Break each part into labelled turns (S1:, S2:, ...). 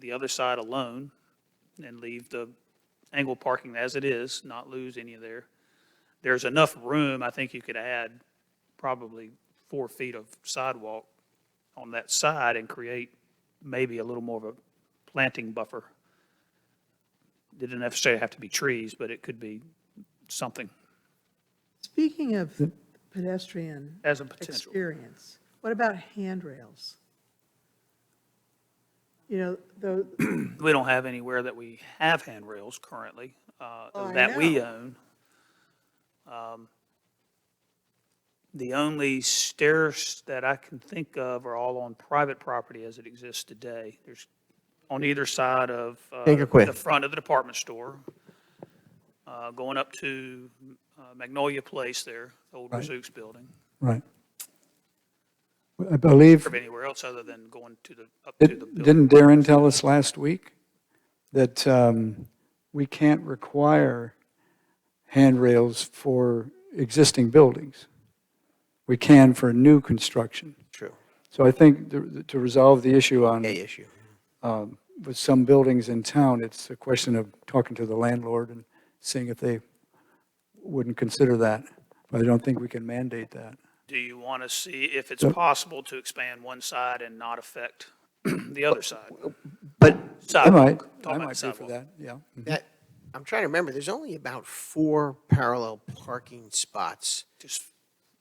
S1: the other side alone and leave the angle parking as it is, not lose any of there. There's enough room, I think you could add probably four feet of sidewalk on that side and create maybe a little more of a planting buffer. It Didn't necessarily have to be trees, but it could be something
S2: Speaking of pedestrian
S1: as a potential.
S2: experience, what about handrails? You know, though,
S1: We don't have anywhere that we have handrails currently, uh,
S2: Oh, I
S1: that we
S2: know.
S1: own. Um, The only stairs that I can think of are all on private property as it exists today. There's on either side of. uh,
S3: Think or quit.
S1: The front of the department store, uh, going up to uh, Magnolia Place there, old
S4: Right.
S1: Rizzuto's building.
S4: Right. Well, I believe,
S1: Or anywhere else other than going to the, up to the
S4: didn't
S1: building.
S4: didn't Darren tell us last week that um, we can't require handrails for existing buildings? We can for new construction.
S3: True.
S4: So I think to to resolve the issue on,
S3: A issue.
S4: with some buildings in town, it's a question of talking to the landlord and seeing if they wouldn't consider that. But I don't think we can mandate that.
S1: Do you want to see if it's possible to expand one side and not affect the other side?
S4: But. I
S1: Sidewalk.
S4: might,
S1: Talking
S4: I
S1: about
S4: might be for
S1: sidewalk.
S4: that, yeah.
S3: That, I'm trying to remember, there's only about four parallel parking spots
S1: Just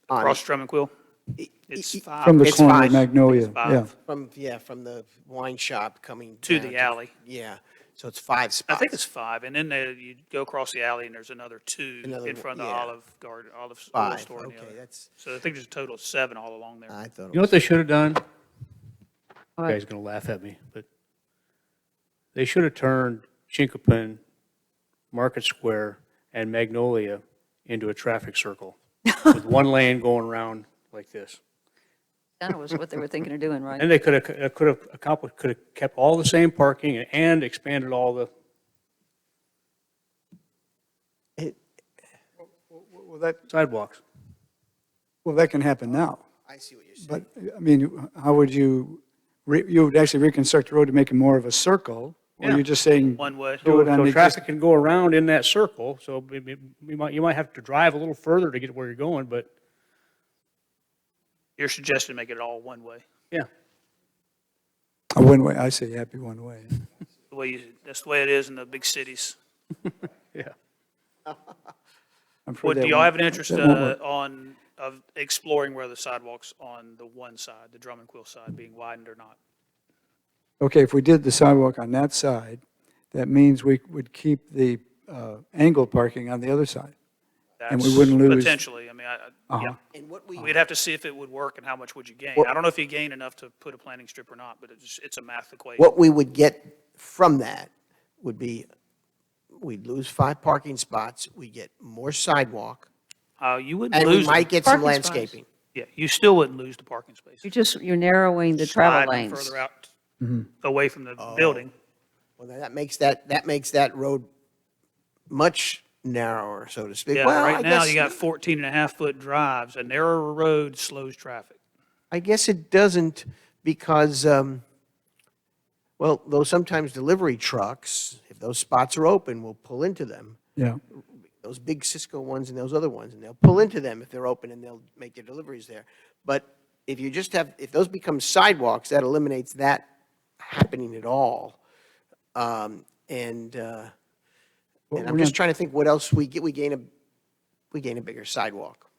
S3: on-
S1: across drum and quill?
S3: i-
S1: It's
S3: i-
S4: E, From
S1: five
S4: the
S3: It's
S4: corner
S3: five.
S4: of Magnolia,
S1: It's
S4: yeah.
S1: five.
S3: From, yeah, from the wine shop coming.
S1: to
S3: down
S1: the alley.
S3: Yeah, so it's
S1: I
S3: five spots.
S1: think it's five, and then there, you go across the alley and there's another two
S3: Another
S1: in
S3: one,
S1: front of the
S3: yeah.
S1: Olive Garden, Olive s- Olive
S3: Five,
S1: Store and the
S3: okay,
S1: other.
S3: that's,
S1: So I think there's a total of seven all along there.
S3: I thought. it
S5: You know
S3: was-
S5: what they should have done? You guys are gonna laugh at me, but they should have turned Chinkopin, Market Square, and Magnolia into a traffic circle with one lane going around like this.
S6: That was what they were thinking of doing, right?
S5: And they uh, could have, could have accomplished, could have kept all the same parking and expanded all the,
S3: it-
S4: Well, that,
S5: sidewalks.
S4: well, that can happen now,
S3: I see what you're saying.
S4: but, I mean, how would you, re- you would actually reconstruct the road to make it more of a circle? Or
S5: Yeah.
S4: you're just saying?
S1: One way.
S4: Do it on
S5: So
S4: the exist-
S5: traffic can go around in that circle, so may- may- you might, you might have to drive a little further to get where you're going, but,
S1: Your suggestion, make it all one way.
S5: yeah.
S4: A one-way, I say happy one-way.
S1: The way, you- that's the way it is in the big cities.
S5: Yeah.
S4: I'm afraid
S1: What,
S4: that
S1: do y'all
S4: won't-
S1: have an interest
S4: that won't
S1: uh,
S4: work.
S1: on, of exploring whether the sidewalks on the one side, the drum and quill side, being widened or not?
S4: Okay, if we did the sidewalk on that side, that means we would keep the uh, angle parking on the other side. And we
S1: That's
S4: wouldn't lose- Uh-huh.
S1: Potentially, I mean, I- I, Oh, yeah.
S3: And what we,
S1: We'd have to see if it would work and how much would you gain. I don't know if you gain enough to put a planting strip or not, but it's, it's a math equation.
S3: what we would get from that would be, we'd lose five parking spots, we get more sidewalk,
S1: Uh, you wouldn't
S3: and we
S1: lose,
S3: might
S1: them.
S3: get some
S6: Parking spots.
S3: landscaping.
S1: yeah, you still wouldn't lose the parking space.
S6: You're just, you're narrowing the
S1: Slide
S6: travel
S1: them
S6: lanes.
S1: Further out,
S4: Mm-hmm.
S1: away from the building.
S3: Well, that makes that, that makes that road much narrower, so to speak.
S1: Yeah,
S3: Well, I
S1: right now,
S3: guess-
S1: you got 14 and a half foot drives. A narrower road slows traffic.
S3: I guess it doesn't because, um, well, though sometimes delivery trucks, if those spots are open, will pull into them.
S4: Yeah,
S3: Those big Cisco ones and those other ones, and they'll pull into them if they're open and they'll make their deliveries there. But if you just have, if those become sidewalks, that eliminates that happening at all. Um, and, uh, and I'm
S4: we're
S3: just
S4: not-
S3: trying to think what else we get, we gain a, we gain a bigger sidewalk.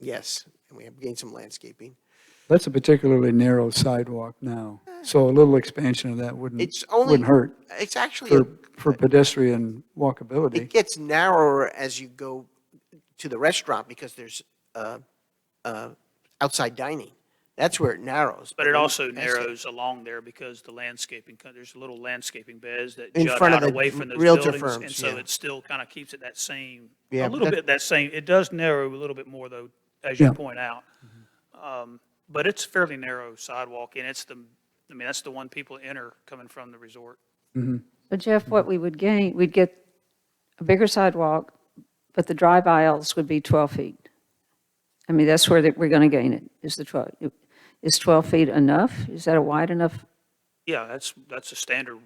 S3: Yes, and we have gained some landscaping.
S4: that's a particularly narrow sidewalk now, so a little expansion of that wouldn't,
S3: It's only.
S4: wouldn't hurt
S3: It's actually, a-
S4: for, for pedestrian walkability.
S3: it gets narrower as you go to the restaurant because there's uh, uh, outside dining. That's where it narrows.
S1: But it
S3: when you
S1: also
S3: pass that-
S1: narrows along there because the landscaping, co- there's little landscaping beds that
S3: In
S1: jut
S3: front of
S1: out
S3: the
S1: away from those
S3: realtor
S1: buildings. And
S3: firms,
S1: so
S3: yeah.
S1: it still kind of keeps it that same,
S3: Yeah,
S1: a
S3: but
S1: little
S3: that-
S1: bit that same, it does narrow a little bit more though, as you
S4: Yeah.
S1: point out.
S3: Mm-hmm.
S1: Um, But it's fairly narrow sidewalk and it's the, I mean, that's the one people enter coming from the resort.
S6: But Jeff, what we would gain, we'd get a bigger sidewalk, but the drive aisles would be 12 feet. I mean, that's where that we're going to gain it, is the 12, is 12 feet enough? Is that a wide enough
S1: Yeah, that's, that's a standard